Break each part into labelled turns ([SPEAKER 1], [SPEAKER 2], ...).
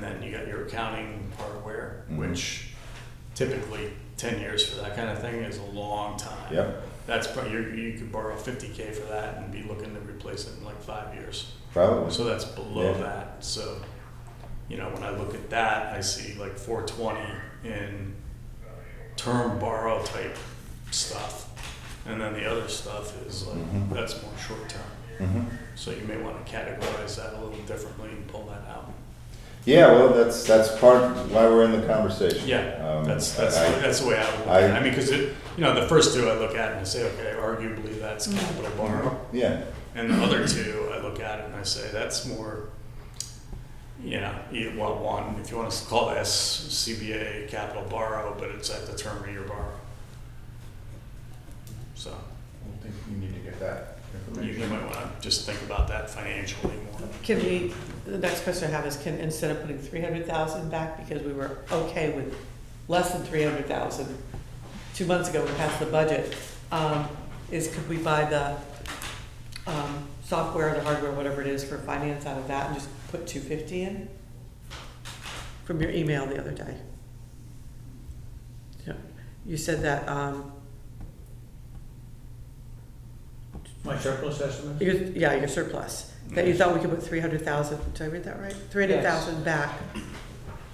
[SPEAKER 1] got your accounting hardware,
[SPEAKER 2] Mhm.
[SPEAKER 1] which typically ten years for that kind of thing is a long time.
[SPEAKER 2] Yep.
[SPEAKER 1] That's probably, you, you could borrow fifty K for that and be looking to replace it in like five years.
[SPEAKER 2] Probably.
[SPEAKER 1] So that's below
[SPEAKER 2] Yeah.
[SPEAKER 1] that, so, you know, when I look at that, I see like four twenty in term borrow type stuff. And then the other stuff is like,
[SPEAKER 2] Mhm.
[SPEAKER 1] that's more short term,
[SPEAKER 2] Mhm.
[SPEAKER 1] so you may wanna categorize that a little differently and pull that out.
[SPEAKER 2] Yeah, well, that's, that's part why we're in the conversation.
[SPEAKER 1] Yeah,
[SPEAKER 2] Um,
[SPEAKER 1] that's, that's,
[SPEAKER 2] I-
[SPEAKER 1] that's the way I would look at it,
[SPEAKER 2] I-
[SPEAKER 1] I mean, cause it, you know, the first two I look at and I say, okay, arguably that's capital borrow.
[SPEAKER 2] Yeah,
[SPEAKER 1] And the other two, I look at it and I say, that's more, you know, you- well, one, if you want to call it SCBA capital borrow, but it's at the term of your borrow. So
[SPEAKER 3] I think you need to get that
[SPEAKER 1] you you
[SPEAKER 3] information.
[SPEAKER 1] might want to just think about that financially more.
[SPEAKER 4] Can we, the next question I have is, can, instead of putting three hundred thousand back, because we were okay with less than three hundred thousand two months ago, we passed the budget, um, is could we buy the, um, software, the hardware, whatever it is for finance out of that and just put two fifty in? From your email the other day. Yeah, You said that, um,
[SPEAKER 3] My surplus estimate?
[SPEAKER 4] Your, yeah, your surplus, that you thought we could put three hundred thousand, did I read that right? Three hundred thousand back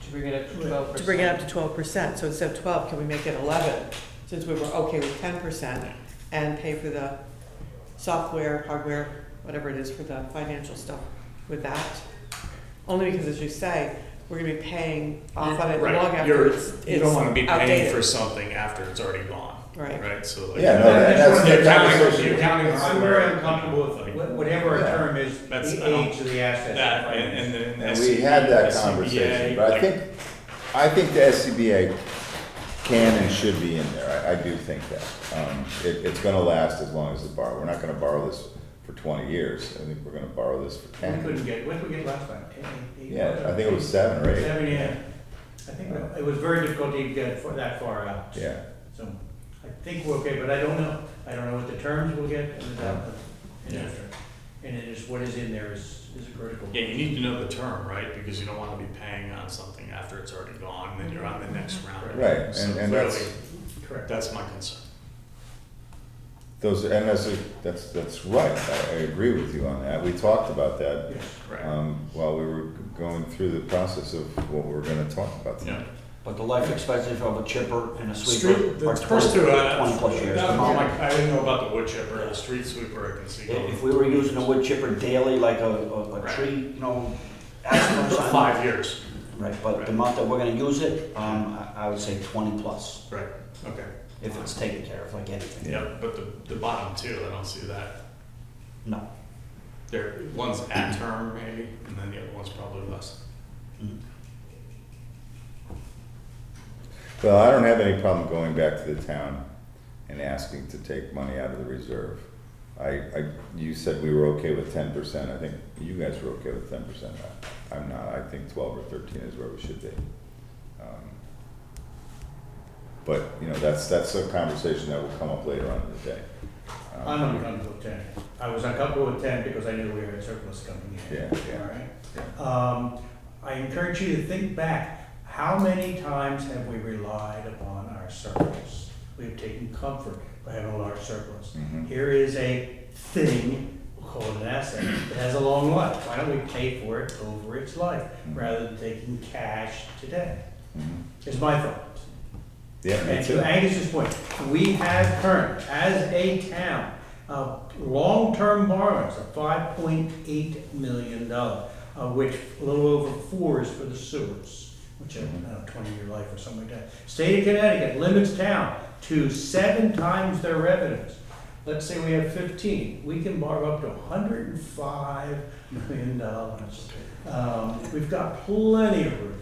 [SPEAKER 5] To bring it up to twelve percent.
[SPEAKER 4] to bring it up to twelve percent, so instead of twelve, can we make it eleven? Since we were okay with ten percent and pay for the software, hardware, whatever it is for the financial stuff with that? Only because as you say, we're gonna be paying off on it long
[SPEAKER 1] Right,
[SPEAKER 4] after
[SPEAKER 1] you're,
[SPEAKER 4] it's outdated.
[SPEAKER 1] you don't want to be paying for something after it's already gone,
[SPEAKER 4] Right.
[SPEAKER 1] right? So like.
[SPEAKER 2] yeah, no, that- that's
[SPEAKER 1] The
[SPEAKER 2] the
[SPEAKER 1] accounting, the
[SPEAKER 2] conversation.
[SPEAKER 1] accounting.
[SPEAKER 3] I'm very uncomfortable with it. Wha- whatever a
[SPEAKER 2] Yeah.
[SPEAKER 3] term is,
[SPEAKER 1] That's-
[SPEAKER 3] the
[SPEAKER 1] I don't-
[SPEAKER 3] age of the assets.
[SPEAKER 1] That and, and then.
[SPEAKER 2] And we had that
[SPEAKER 1] SCBA,
[SPEAKER 2] conversation, but I
[SPEAKER 1] like-
[SPEAKER 2] think, I think the SCBA can and should be in there. I, I do think that. Um, it, it's gonna last as long as the borrow. We're not gonna borrow this for twenty years. I think we're gonna borrow this for
[SPEAKER 3] We couldn't
[SPEAKER 2] ten.
[SPEAKER 3] get, what did we get last time? Ten, eight,
[SPEAKER 2] Yeah, I
[SPEAKER 3] whatever.
[SPEAKER 2] think it was seven or eight.
[SPEAKER 3] Seven, yeah. I think that- it was very difficult to even get it for- that far out.
[SPEAKER 2] Yeah,
[SPEAKER 3] So I think we're okay, but I don't know. I don't know what the terms we'll get and the, and the-
[SPEAKER 1] Yeah.
[SPEAKER 3] and it is, what is in there is, is critical.
[SPEAKER 1] Yeah, you need to know the term, right? Because you don't want to be paying on something after it's already gone, and then you're on the next
[SPEAKER 4] Mm-hmm.
[SPEAKER 1] round.
[SPEAKER 2] right,
[SPEAKER 1] So
[SPEAKER 2] and, and
[SPEAKER 1] clearly,
[SPEAKER 2] that's,
[SPEAKER 3] Correct.
[SPEAKER 1] That's my concern.
[SPEAKER 2] those, and that's, a- that's, that's right. I, I agree with you on that. We talked about that,
[SPEAKER 3] Yes.
[SPEAKER 1] Right.
[SPEAKER 2] um, while we were going through the process of what we were gonna talk about tonight.
[SPEAKER 1] Yeah.
[SPEAKER 6] But the life expectancy of a chipper and a
[SPEAKER 1] Street,
[SPEAKER 6] sweeper
[SPEAKER 1] the
[SPEAKER 6] are
[SPEAKER 1] first
[SPEAKER 6] twenty,
[SPEAKER 1] two, I,
[SPEAKER 6] twenty plus years.
[SPEAKER 1] that-
[SPEAKER 6] Come
[SPEAKER 1] oh
[SPEAKER 6] on.
[SPEAKER 1] my- I didn't know about the wood chipper, the street sweeper, I can see.
[SPEAKER 6] If if we were using a wood chipper daily, like a, a, a tree, you know, aspen or
[SPEAKER 1] For
[SPEAKER 6] something.
[SPEAKER 1] Five years,
[SPEAKER 6] Right, but the month that we're gonna use it, um, I, I would say twenty plus,
[SPEAKER 1] right, okay.
[SPEAKER 6] if it's taken care of, like anything.
[SPEAKER 1] Yeah, but the, the bottom two, I don't see that.
[SPEAKER 6] No.
[SPEAKER 1] There, one's at term maybe, and then the other one's probably less.
[SPEAKER 2] Well, I don't have any problem going back to the town and asking to take money out of the reserve. I, I, you said we were okay with ten percent, I think you guys were okay with ten percent, I'm not, I think twelve or thirteen is where we should be. Um, But, you know, that's, that's a conversation that will come up later on in the day. Um,
[SPEAKER 3] I'm uncomfortable with ten. I was uncomfortable with ten because I knew we had surplus coming in.
[SPEAKER 2] Yeah, yeah.
[SPEAKER 3] All right. Um, I encourage you to think back, how many times have we relied upon our surplus? We have taken comfort by having a large surplus.
[SPEAKER 2] Mhm.
[SPEAKER 3] Here is a thing, we'll call it an asset, that has a long life. Why don't we pay for it over its life
[SPEAKER 2] Mm-hmm.
[SPEAKER 3] rather than taking cash today?
[SPEAKER 2] Mhm.
[SPEAKER 3] Is my thought.
[SPEAKER 2] Yeah, me
[SPEAKER 3] And
[SPEAKER 2] too.
[SPEAKER 3] to Angus's point, we have current, as a town, uh, long-term borrowings of five point eight million dollars, of which a little over four is for the sewers, which are, I
[SPEAKER 2] Mm-hmm.
[SPEAKER 3] don't know, twenty-year life or something like that. State of Connecticut limits town to seven times their revenues. Let's say we have fifteen, we can borrow up to hundred and five million dollars. Um, we've got plenty of room.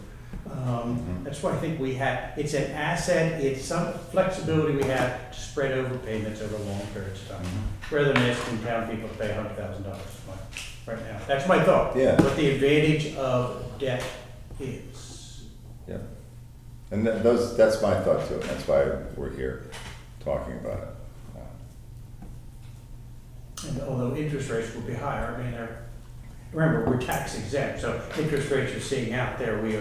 [SPEAKER 3] Um, that's why I think we have, it's an asset, it's some flexibility we have to spread over payments over long periods of time. Rather than asking town people to pay hundred thousand dollars right now. That's my thought.
[SPEAKER 2] Yeah.
[SPEAKER 3] What the advantage of debt is.
[SPEAKER 2] Yeah. And that, those, that's my thought too, and that's why we're here, talking about it. Um,
[SPEAKER 3] And although interest rates will be higher, I mean, they're, remember, we're tax exempt, so interest rates you're seeing out there, we